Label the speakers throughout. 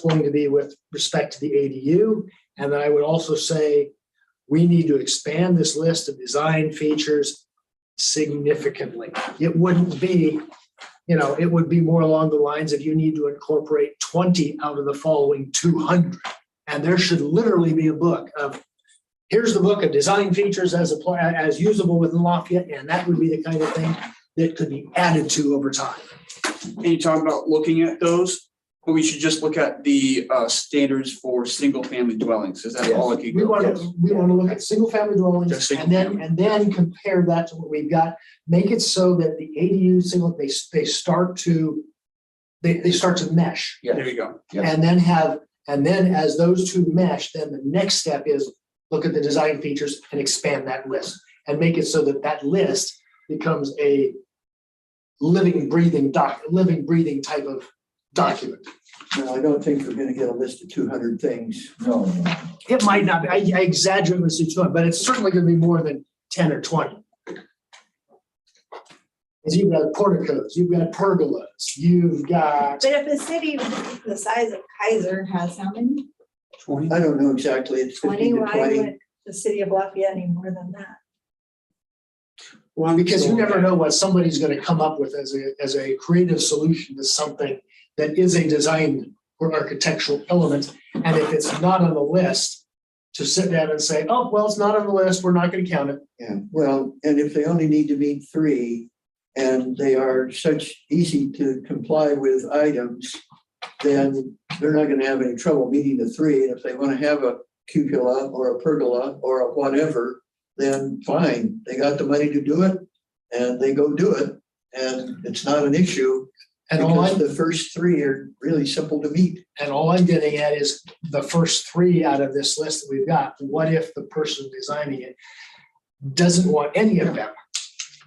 Speaker 1: going to be with respect to the ADU. And then I would also say, we need to expand this list of design features significantly. It wouldn't be, you know, it would be more along the lines of you need to incorporate twenty out of the following two hundred. And there should literally be a book of, here's the book of design features as apply, as usable within Lafayette, and that would be the kind of thing that could be added to over time.
Speaker 2: And you talk about looking at those, but we should just look at the uh standards for single family dwellings, is that all it could
Speaker 1: We
Speaker 2: go?
Speaker 1: want
Speaker 2: Yes.
Speaker 1: to, we want to look at single family
Speaker 2: Just
Speaker 1: dwellings
Speaker 2: single
Speaker 1: and then,
Speaker 2: family.
Speaker 1: and then compare that to what we've got. Make it so that the ADU single, they, they start to, they, they start to mesh.
Speaker 2: There you go.
Speaker 3: Yeah.
Speaker 1: And then have, and then as those two mesh, then the next step is look at the design features and expand that list. And make it so that that list becomes a living, breathing doc, living, breathing type of document.
Speaker 4: No, I don't think we're gonna get a list of two hundred things.
Speaker 3: No, no, no.
Speaker 1: It might not, be- I I exaggerate with each one, but it's certainly gonna be more than ten or twenty. 'Cause you've got porticos, you've got pergolas, you've got,
Speaker 5: But if a city the size of Kaiser has how many?
Speaker 2: Twenty.
Speaker 4: I don't know exactly. It's
Speaker 5: Twenty,
Speaker 4: fifteen to
Speaker 5: why
Speaker 4: twenty.
Speaker 5: would the city of Lafayette any more than that?
Speaker 2: Well,
Speaker 1: because you never know what somebody's gonna come up with as a, as a creative solution to something that is a design or architectural element, and if it's not on the list, to sit down and say, oh, well, it's not on the list, we're not gonna count it.
Speaker 4: Yeah, well, and if they only need to meet three and they are such easy to comply with items, then they're not gonna have any trouble meeting the three. And if they wanna have a cupola or a pergola or a whatever, then fine, they got the money to do it and they go do it. And it's not an issue
Speaker 1: And all I
Speaker 4: because the first three are really simple to meet.
Speaker 1: And all I'm getting at is the first three out of this list that we've got, what if the person designing it doesn't want any of them?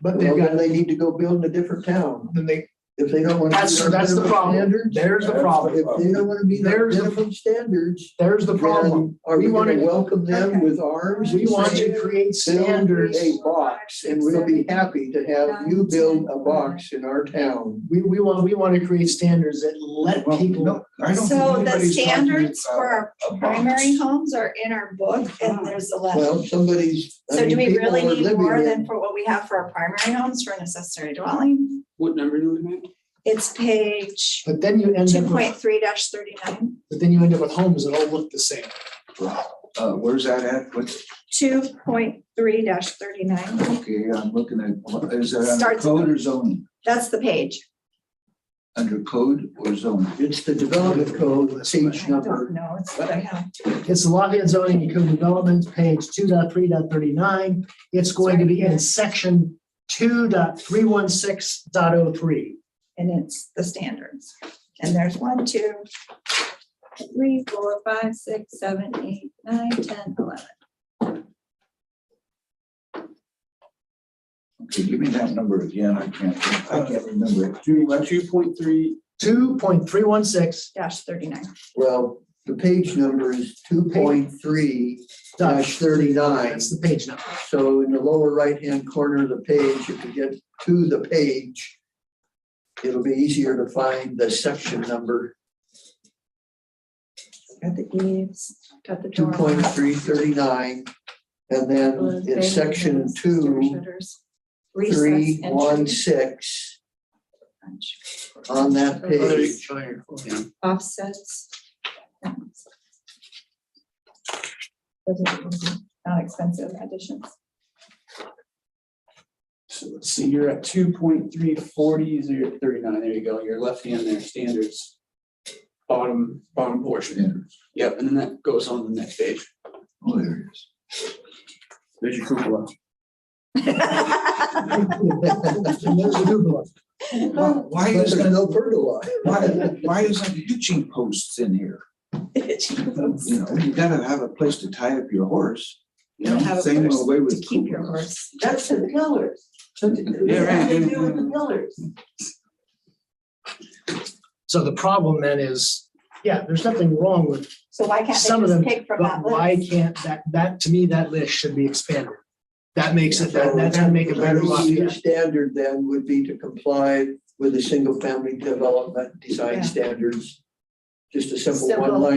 Speaker 1: But they've
Speaker 4: Well,
Speaker 1: got,
Speaker 4: then they need to go build in a different town.
Speaker 1: then they,
Speaker 4: If they don't want to.
Speaker 1: that's, that's the problem. There's the problem.
Speaker 4: If they don't want to meet our
Speaker 1: There's the-
Speaker 4: minimum standards,
Speaker 1: There's the problem.
Speaker 4: then are
Speaker 1: We
Speaker 4: we
Speaker 1: wanna-
Speaker 4: going to welcome them
Speaker 5: Okay.
Speaker 4: with arms?
Speaker 1: We
Speaker 4: and
Speaker 1: want
Speaker 4: say,
Speaker 1: to create
Speaker 4: "Build
Speaker 1: standards.
Speaker 4: A box and we'll be happy to have you build a box in our town.
Speaker 1: We, we want, we want to create standards that let
Speaker 3: Well,
Speaker 1: people,
Speaker 3: no, I don't think
Speaker 5: So the
Speaker 3: anybody's talking
Speaker 5: standards
Speaker 3: about
Speaker 5: for our
Speaker 3: a box.
Speaker 5: primary homes are in our book
Speaker 4: Ah.
Speaker 5: and there's a
Speaker 4: Well,
Speaker 5: letter.
Speaker 4: somebody's. I
Speaker 5: So do
Speaker 4: mean,
Speaker 5: we
Speaker 4: people
Speaker 5: really
Speaker 4: are
Speaker 5: need
Speaker 4: living
Speaker 5: more
Speaker 4: in-
Speaker 5: than for what we have for our primary homes for an accessory dwelling?
Speaker 2: What number do we have?
Speaker 5: It's page
Speaker 1: but then you end up,
Speaker 5: two
Speaker 1: with-
Speaker 5: point three thirty-nine,
Speaker 1: but then you end up with homes that all look the same.
Speaker 3: Uh, where's that at? What's,
Speaker 5: two point three thirty-nine.
Speaker 3: okay, I'm looking at, what- is that under
Speaker 5: Starts-
Speaker 3: code or zoning?
Speaker 5: That's the page.
Speaker 3: Under code or zoning?
Speaker 4: It's the development code, page
Speaker 5: I don't
Speaker 4: number.
Speaker 5: know, it's what I have.
Speaker 1: It's the Lafayette zoning and code development, page 2.3.39. It's going to be in section 2.316.03.
Speaker 5: and it's the standards. And there's one, two, three, four, five, six, seven, eight, nine, ten, eleven.
Speaker 3: Okay, give me that number again. I can't, I can't remember. it.
Speaker 2: Two point three,
Speaker 1: Two point three one six
Speaker 5: Dash thirty-nine.
Speaker 4: Well, the page number is two point three dash thirty-nine.
Speaker 1: That's the page number.
Speaker 4: So in the lower right-hand corner of the page, if you get to the page, it'll be easier to find the section number,
Speaker 5: Got the eaves, got the
Speaker 4: two
Speaker 5: door.
Speaker 4: point three thirty-nine. And then in section two, three, one, six, on that page.
Speaker 5: Offsets. Those are the Non-expensive additions.
Speaker 2: so let's see, you're at two point three forty, zero thirty-nine, there you go, your left hand there, standards. Bottom, bottom portion, yep, and then that goes on the next page,
Speaker 3: Oh, there it is.
Speaker 2: there's your cupola.
Speaker 1: And there's the Google one.
Speaker 3: Why- Why
Speaker 4: But
Speaker 3: is
Speaker 4: there's
Speaker 3: that,
Speaker 4: no pergola.
Speaker 3: why, why is that hitching posts in here? You know, you gotta have a place to tie up your horse.
Speaker 5: You don't have a
Speaker 3: Same
Speaker 5: place
Speaker 3: way with
Speaker 5: to keep your
Speaker 3: cupolas.
Speaker 5: horse.
Speaker 6: That's the pillars. What do
Speaker 3: Yeah,
Speaker 2: right.
Speaker 6: they do with the pillars?
Speaker 1: So the problem then is, yeah, there's nothing wrong with,
Speaker 5: So why can't
Speaker 1: Some of
Speaker 5: they just
Speaker 1: them,
Speaker 5: pick from
Speaker 1: but
Speaker 5: that
Speaker 1: why
Speaker 5: list?
Speaker 1: can't that, that, to me, that list should be expanded. That makes it, that, that's gonna make it better.
Speaker 4: The easier
Speaker 1: Lafayette.
Speaker 4: Standard then would be to comply with the single-family development design standards. just a simple
Speaker 5: Simple.
Speaker 4: one line